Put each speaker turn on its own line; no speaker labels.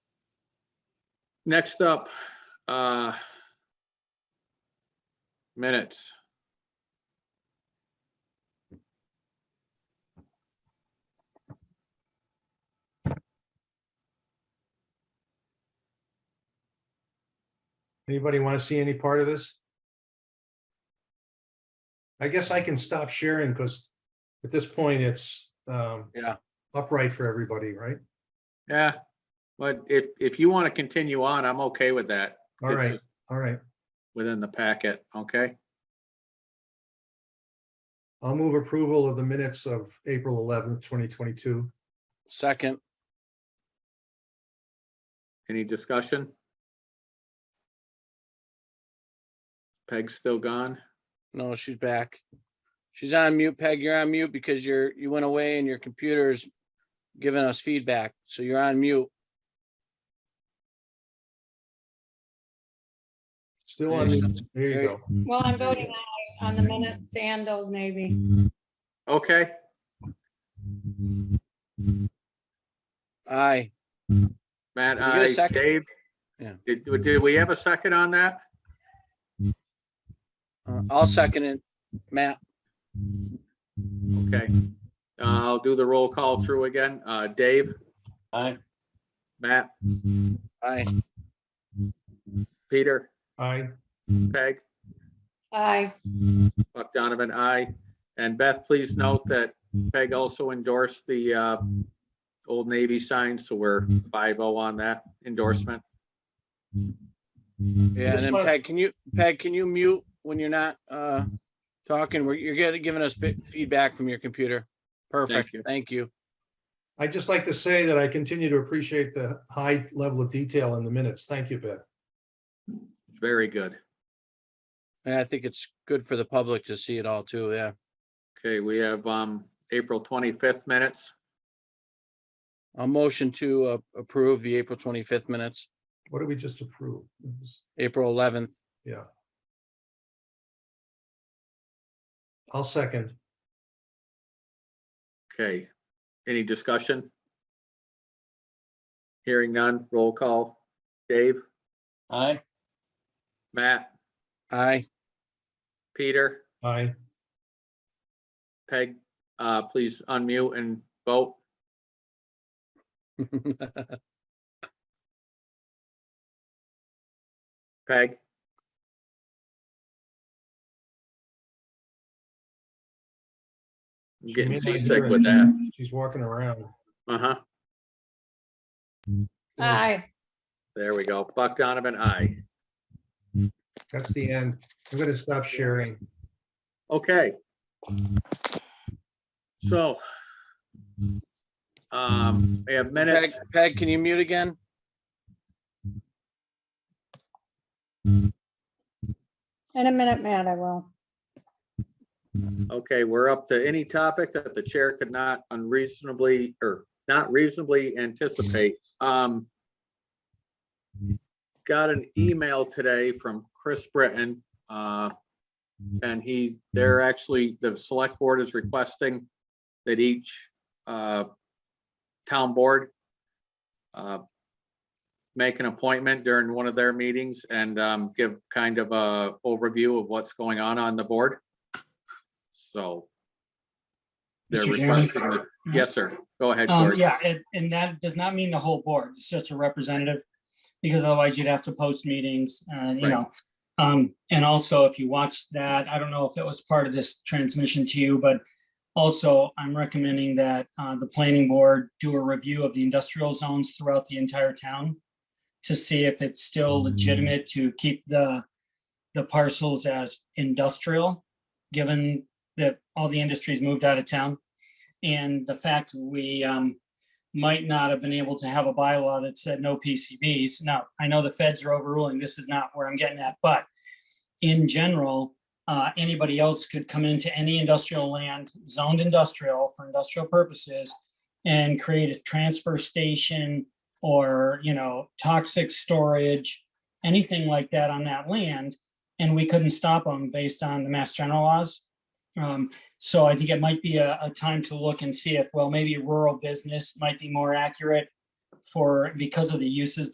Next up, uh, minutes.
Anybody want to see any part of this? I guess I can stop sharing because at this point, it's um,
Yeah.
upright for everybody, right?
Yeah, but if, if you want to continue on, I'm okay with that.
All
It's
right,
just
all right.
Within the packet, okay?
I'll move approval of the minutes of April eleventh, twenty twenty-two.
Second,
Any discussion? Peg's still gone?
no, she's back. She's on mute, Peg. You're on mute because you're, you went away and your computer's giving us feedback, so you're on mute.
Still on,
Nice.
mute. there you
There you
go.
Well, I'm voting aye on the minutes and those maybe.
Okay,
Aye,
Matt,
Did we get a
I,
second?
Dave?
Yeah.
Did, did we have a second on that?
Uh, I'll second it. Matt,
Okay. Uh, I'll do the roll call through again. Uh, Dave?
Aye.
Matt,
aye.
Peter,
Aye,
Peg?
Aye,
Buck Donovan, aye. And Beth, please note that Peg also endorsed the uh, Old Navy sign, so we're 5-0 on that endorsement.
Yeah,
Just
and then
wanna-
Peg, can you, Peg, can you mute when you're not, uh, talking? We're You're getting, giving us bit- feedback from your computer. Perfect,
you.
thank you.
I'd just like to say that I continue to appreciate the high level of detail in the minutes. Thank you, Beth.
Very good.
And I think it's good for the public to see it all too, yeah.
Okay, we have um, April 25th minutes.
A motion to uh, approve the April twenty-fifth minutes,
What did we just approve? It was-
April eleventh.
I'll second.
Okay, any discussion? Hearing none, roll call. Dave,
Aye.
Matt,
Aye.
Peter,
Aye,
Peg, uh, please unmute and vote. Peg? I'm
She
Getting
may not hear
seasick
it.
with that.
she's walking around.
Uh-huh.
aye,
There we go. Buck Donovan, aye.
That's the end. I'm gonna stop sharing.
Okay. So. Um, we have
Peg,
minutes.
Peg, can you mute again?
in a minute, Matt, I will.
Okay, we're up to any topic that the chair could not unreasonably or not reasonably anticipate. Um. Got an
Mm.
email today from Chris Britton, uh, and he, they're
Mm.
actually, the select board is requesting that each, uh, town board uh, make an appointment during one of their meetings and, um, give kind of a overview of what's going on on the board. So. They're
Mr. Chairman?
requesting, that- yes, sir. Go ahead,
Um,
George.
yeah, and, and that does not mean the whole board, it's just a representative, because otherwise you'd have to post meetings, and you
Right.
know. Um, and also, if you watch that, I don't know if it was part of this transmission to you, but also, I'm recommending that, uh, the planning board do a review of the industrial zones throughout the entire town to see if it's still legitimate to keep the, the parcels as industrial, given that all the industries moved out of town. And the fact we um, might not have been able to have a bylaw that said no PCBs. Now, I know the feds are overruling, this is not where I'm getting at, but in general, uh, anybody else could come into any industrial land zoned industrial for industrial purposes and create a transfer station or, you know, toxic storage, anything like that on that land. And we couldn't stop them based on the mass general laws. Um, so I think it might be a, a time to look and see if, well, maybe rural business might be more accurate for, because of the uses